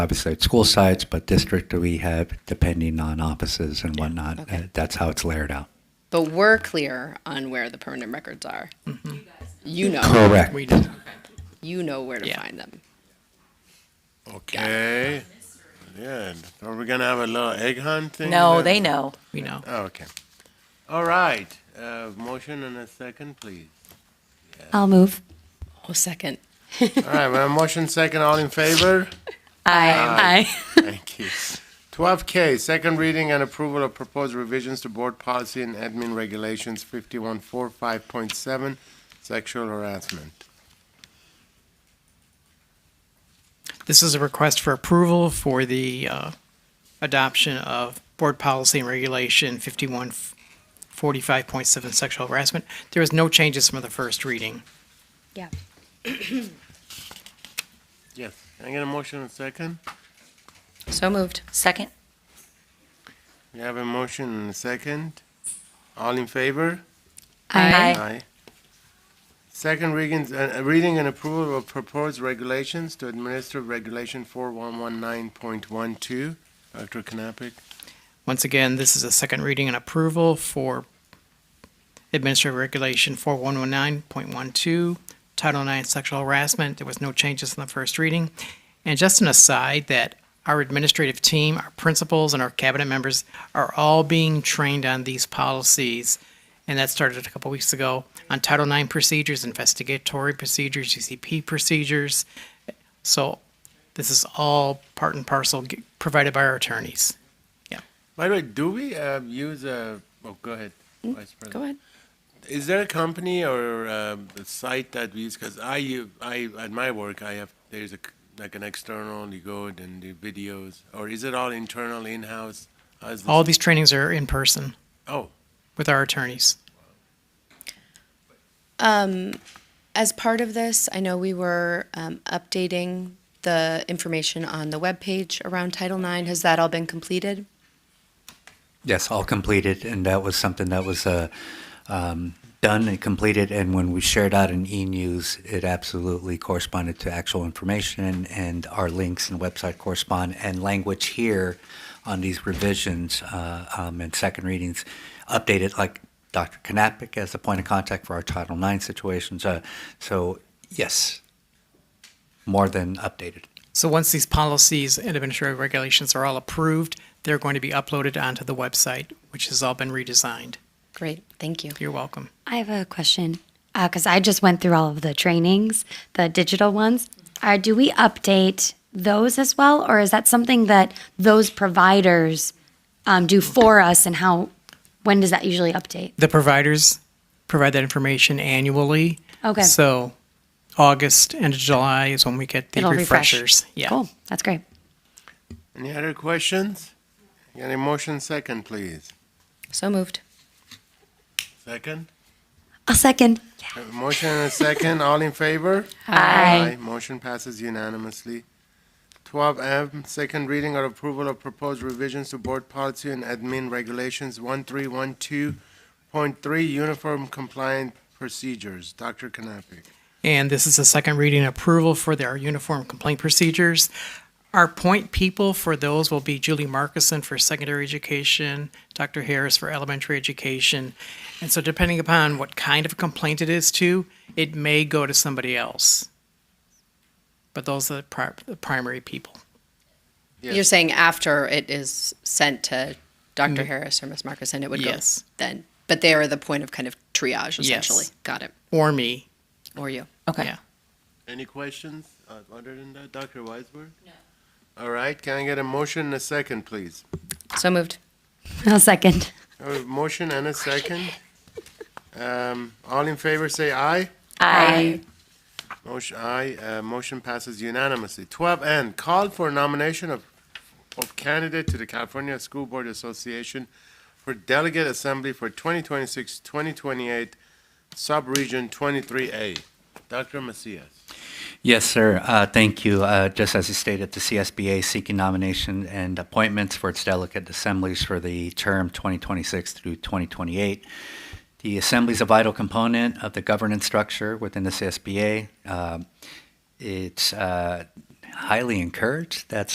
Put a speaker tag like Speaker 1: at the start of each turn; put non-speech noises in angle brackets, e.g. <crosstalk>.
Speaker 1: obviously at school sites, but district we have, depending on offices and whatnot. Uh, That's how it's layered out.
Speaker 2: But we're clear on where the permanent records are. You know,
Speaker 1: Correct.
Speaker 3: We did.
Speaker 2: you know where to
Speaker 3: Yeah.
Speaker 2: find them.
Speaker 4: Okay. Yeah. Are we gonna have a little egg hunt thing?
Speaker 5: No,
Speaker 4: then?
Speaker 5: they know.
Speaker 3: We know.
Speaker 4: Oh, okay. All right. Uh, motion and a second, please.
Speaker 6: I'll move.
Speaker 2: Oh, second.
Speaker 4: All right. We have motion second. All in favor?
Speaker 5: I.
Speaker 4: <laughs> Thank you. Twelve K, second reading and approval of proposed revisions to board policy and admin regulations fifty-one four five point seven, sexual harassment.
Speaker 3: This is a request for approval for the uh, adoption of Board Policy and Regulation 5145.7 sexual harassment. There is no changes from the first reading.
Speaker 6: Yeah.
Speaker 4: Yes. Can I get a motion and second?
Speaker 2: So moved.
Speaker 5: Second?
Speaker 4: We have a motion and a second. All in favor?
Speaker 5: Aye.
Speaker 4: Aye. Second reading, uh, reading and approval of proposed regulations to administer regulation four one one nine point one two. Dr. Knappich,
Speaker 3: Once again, this is a second reading and approval for Administrative Regulation 4119.12, Title IX Sexual Harassment. There was no changes in the first reading. And just an aside that our administrative team, our principals, and our cabinet members are all being trained on these policies. And that started a couple weeks ago on Title IX procedures, investigatory procedures, UCP procedures. So this is all part and parcel g- provided by our attorneys.
Speaker 4: by the way, do we uh, use a, oh, go ahead, Vice President.
Speaker 2: Hmm? Go ahead.
Speaker 4: Is there a company or uh, a site that we use? Because I, u- I, at my work, I have, there's a, c- like an external, you go and do videos, or is it all internal, in-house? How's this-
Speaker 3: All these trainings are in person
Speaker 4: Oh,
Speaker 3: with our attorneys.
Speaker 2: Um, as part of this, I know we were um, updating the information on the webpage around Title IX. Has that all been completed?
Speaker 1: Yes, all completed, and that was something that was uh, um, done and completed. And when we shared out in e-news, it absolutely corresponded to actual information, and our links and website correspond. And language here on these revisions uh, um, and second readings updated, like Dr. Knappich as the point of contact for our Title IX situations. Uh, so yes, more than updated.
Speaker 3: So once these policies and administrative regulations are all approved, they're going to be uploaded onto the website, which has all been redesigned.
Speaker 2: Great. Thank you.
Speaker 3: You're welcome.
Speaker 6: I have a question because I just went through all of the trainings, the digital ones. Uh, do we update those as well, or is that something that those providers um, do for us? And how? When does that usually update?
Speaker 3: The providers provide that information annually.
Speaker 6: Okay.
Speaker 3: So August and July is when we get the
Speaker 6: It'll refresh.
Speaker 3: refreshers. Yeah.
Speaker 6: Cool. That's great.
Speaker 4: any other questions? Get a motion second, please.
Speaker 2: So moved.
Speaker 4: Second?
Speaker 6: I'll second.
Speaker 4: A Motion and a second, all in favor?
Speaker 5: Aye.
Speaker 4: Motion passes unanimously. Twelve M, second reading or approval of proposed revisions to board policy and admin regulations one three one two point three, uniform compliant procedures. Dr. Knappich.
Speaker 3: And this is a second reading approval for their uniform complaint procedures. Our point people for those will be Julie Markison for secondary education, Dr. Harris for elementary education. And so depending upon what kind of complaint it is to, it may go to somebody else. But those are the pri- the primary people.
Speaker 4: Yes.
Speaker 2: You're saying after it is sent to doctor Harris or Ms. Marcus, and it would
Speaker 3: Yes.
Speaker 2: go then. But they are the point of kind of triage, essentially.
Speaker 3: Yes.
Speaker 2: Got it.
Speaker 3: Or me.
Speaker 2: Or you.
Speaker 5: Okay.
Speaker 3: Yeah.
Speaker 4: Any questions uh, other than that, Dr. Weisberg? No. All right, can I get a motion and a second, please?
Speaker 2: So moved.
Speaker 6: I'll second.
Speaker 4: A motion and a second? Um, all in favor, say aye.
Speaker 5: Aye.
Speaker 4: Motion, aye, uh, motion passes unanimously. Twelve N, call for nomination of, of candidate to the California School Board Association for Delegate Assembly for 2026, 2028, Subregion 23A. Dr. Macias.
Speaker 1: Yes, sir. Uh, Thank you. Uh, Just as you stated, the CSBA is seeking nomination and appointments for its delegate assemblies for the term 2026 through 2028. The assembly is a vital component of the governance structure within the CSBA. Um, It's uh, highly encouraged that